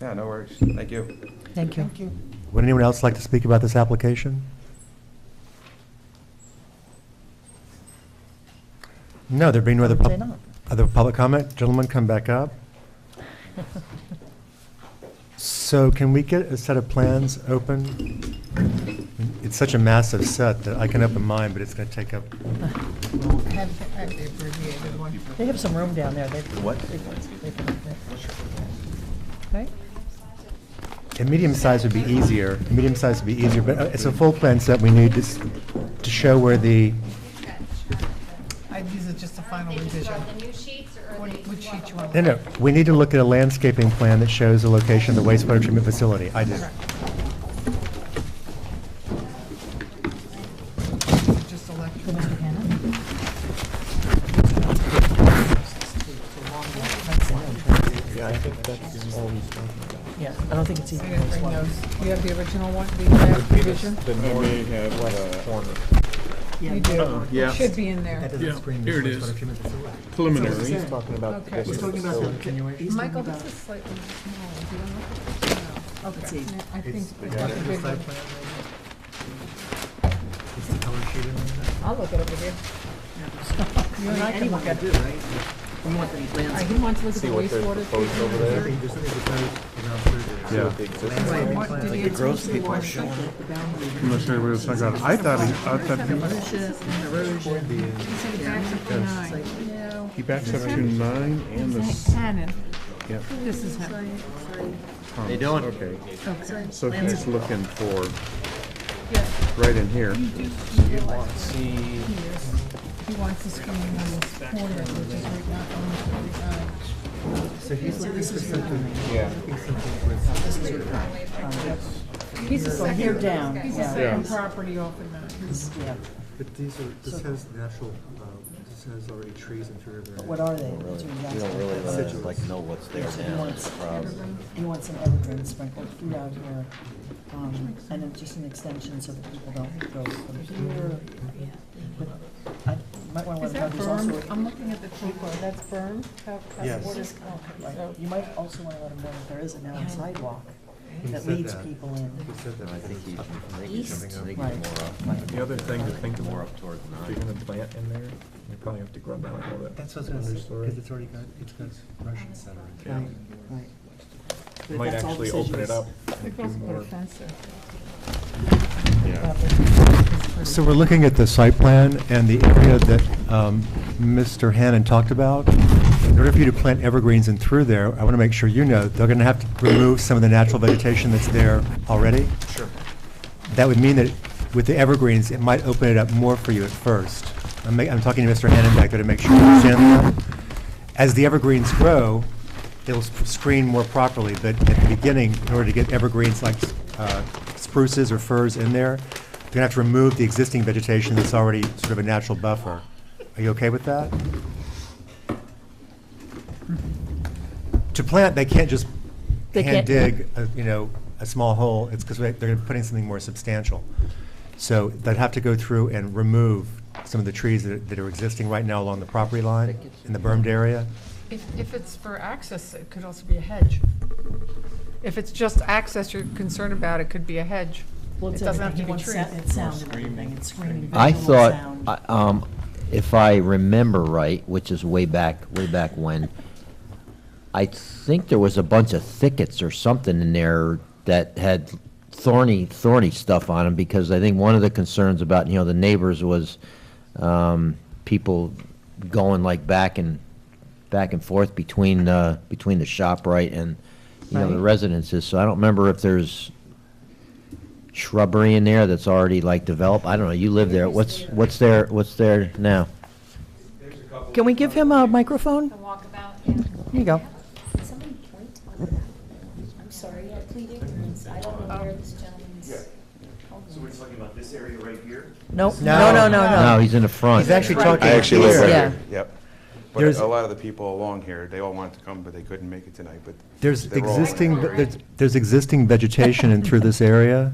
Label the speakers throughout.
Speaker 1: Yeah, no worries. Thank you.
Speaker 2: Thank you.
Speaker 3: Would anyone else like to speak about this application? No, there being no other,
Speaker 2: Would say
Speaker 3: pub-
Speaker 2: not.
Speaker 3: other public comment, gentlemen, come back up. So can we get a set of plans open? It's such a massive set that I can open mine, but it's going to take up,
Speaker 2: They have some room down there. What? Right?
Speaker 3: a medium size would be easier, a medium size would be easier, but uh, it's a full plan set we need to s- to show where the,
Speaker 4: I, these are just the final
Speaker 5: They just
Speaker 4: revision.
Speaker 5: want the new sheets or
Speaker 4: What-
Speaker 5: they
Speaker 4: Which sheet you want?
Speaker 3: no, no, we need to look at a landscaping plan that shows the location of the wastewater treatment facility. I do.
Speaker 4: Just
Speaker 2: For
Speaker 4: electric.
Speaker 2: Mr. Hannah? Yeah, I don't think it's
Speaker 4: I
Speaker 2: even.
Speaker 4: didn't bring those. You have the original one, the draft revision?
Speaker 6: The Norway had, uh,
Speaker 4: You do.
Speaker 6: yeah.
Speaker 4: It should be in there.
Speaker 6: Yeah, here it is. preliminary.
Speaker 4: Okay. Michael, this is slightly small. Do you want to look at this? No. Okay, I think we got the big one. I'll look at it with you. You and I can look at it. Uh, He wants to look at the wastewater. treatment reserve.
Speaker 6: Yeah.
Speaker 4: What did he answer? He wants to look at the boundary.
Speaker 6: I'm not sure where it's, I got it. I thought, he- I thought
Speaker 4: He said it's actually nine.
Speaker 6: he, he backs up to nine and the, s-
Speaker 4: Hannon.
Speaker 6: yeah.
Speaker 4: This is Hannon.
Speaker 6: They doing? Okay,
Speaker 3: Oh,
Speaker 4: Okay.
Speaker 6: so he's looking for,
Speaker 4: Yeah.
Speaker 6: right in here.
Speaker 4: He wants to screen on this corner, which is right now on the He's a
Speaker 2: You're
Speaker 4: second,
Speaker 2: down.
Speaker 4: he's a
Speaker 2: yeah.
Speaker 4: second
Speaker 6: Yeah.
Speaker 4: property off of that.
Speaker 7: But these are, this has natural, uh, this has already trees in three of their.
Speaker 2: What are they? That's what he's asking.
Speaker 8: really, like, know what's there
Speaker 2: He
Speaker 8: now.
Speaker 2: wants, he wants an evergreen sprinkled throughout here, um, and then just an extension so that people don't go from here. But I might want to
Speaker 4: Is
Speaker 2: let
Speaker 4: that
Speaker 2: others also,
Speaker 4: berm? I'm looking at the Chico, that's berm? How- how-
Speaker 7: Yes.
Speaker 4: what is- okay,
Speaker 2: right,
Speaker 4: so-
Speaker 2: you might also want to let them know that there is a now a sidewalk
Speaker 7: He
Speaker 2: that
Speaker 7: said
Speaker 2: leads
Speaker 7: that.
Speaker 2: people in.
Speaker 7: He said that, I think he.
Speaker 8: East.
Speaker 2: Right.
Speaker 7: uh,
Speaker 9: The other thing to think
Speaker 8: More
Speaker 9: about,
Speaker 8: up toward
Speaker 9: if
Speaker 8: nine.
Speaker 9: you're gonna plant in there, you probably have to grub out all that.
Speaker 7: That's what's gonna, because it's already got, it's got Russian center in
Speaker 9: Yeah.
Speaker 7: it.
Speaker 2: Right. But
Speaker 9: Might
Speaker 2: that's all
Speaker 9: actually open it
Speaker 2: decisions.
Speaker 9: up.
Speaker 4: The
Speaker 9: and do
Speaker 4: girl's got a
Speaker 9: more.
Speaker 4: fence there.
Speaker 6: Yeah.
Speaker 3: So we're looking at the site plan and the area that um, Mr. Hannan talked about. In order for you to plant evergreens and through there, I want to make sure you know, they're going to have to remove some of the natural vegetation that's there already. Sure. That would mean that with the evergreens, it might open it up more for you at first. I'm ma- I'm talking to Mr. Hannan back there to make sure you understand that. As the evergreens grow, they'll s- screen more properly, but at the beginning, in order to get evergreens like uh, spruces or firs in there, they're gonna have to remove the existing vegetation that's already sort of a natural buffer. Are you okay with that? To plant, they can't just
Speaker 2: They can't-
Speaker 3: hand dig, a- you know, a small hole, it's because they're putting something more substantial. So they'd have to go through and remove some of the trees that are- that are existing right now along the property line in the bermed area.
Speaker 4: If, if it's for access, it could also be a hedge. If it's just access you're concerned about, it could be a hedge.
Speaker 2: Well, it's
Speaker 4: It doesn't have
Speaker 2: everything.
Speaker 4: to be
Speaker 2: He wants
Speaker 4: trees.
Speaker 2: sa- It's sound and everything, it's screaming.
Speaker 8: I
Speaker 2: visual
Speaker 8: thought,
Speaker 2: sound.
Speaker 8: I- um, if I remember right, which is way back, way back when, I think there was a bunch of thickets or something in there that had thorny, thorny stuff on them, because I think one of the concerns about, you know, the neighbors was, um, people going like back and, back and forth between, uh, between the shop right and, you know, the
Speaker 2: Right.
Speaker 8: residences, so I don't remember if there's shrubbery in there that's already like developed, I don't know, you live there, what's, what's there, what's there now?
Speaker 2: Can we give him a microphone?
Speaker 5: The walkabout, yeah.
Speaker 2: Here you go.
Speaker 10: Somebody point on that. I'm sorry, I plead ignorance. I don't know where this gentleman's.
Speaker 2: No, no, no, no,
Speaker 8: No,
Speaker 2: no.
Speaker 8: he's in the front.
Speaker 3: He's actually talking
Speaker 1: I actually live
Speaker 3: here.
Speaker 1: right
Speaker 2: Yeah.
Speaker 1: here, yep. But
Speaker 3: There's-
Speaker 1: a lot of the people along here, they all wanted to come, but they couldn't make it tonight, but.
Speaker 3: There's
Speaker 1: they're all-
Speaker 3: existing, there's- there's existing vegetation in through this area.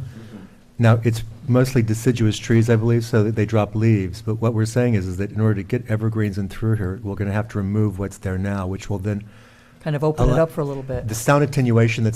Speaker 3: Now, it's mostly deciduous trees, I believe, so that they drop leaves. But what we're saying is, is that in order to get evergreens in through here, we're going to have to remove what's there now, which will then,
Speaker 2: Kind of open it
Speaker 3: Allow-
Speaker 2: up for a little bit.
Speaker 3: the sound attenuation that's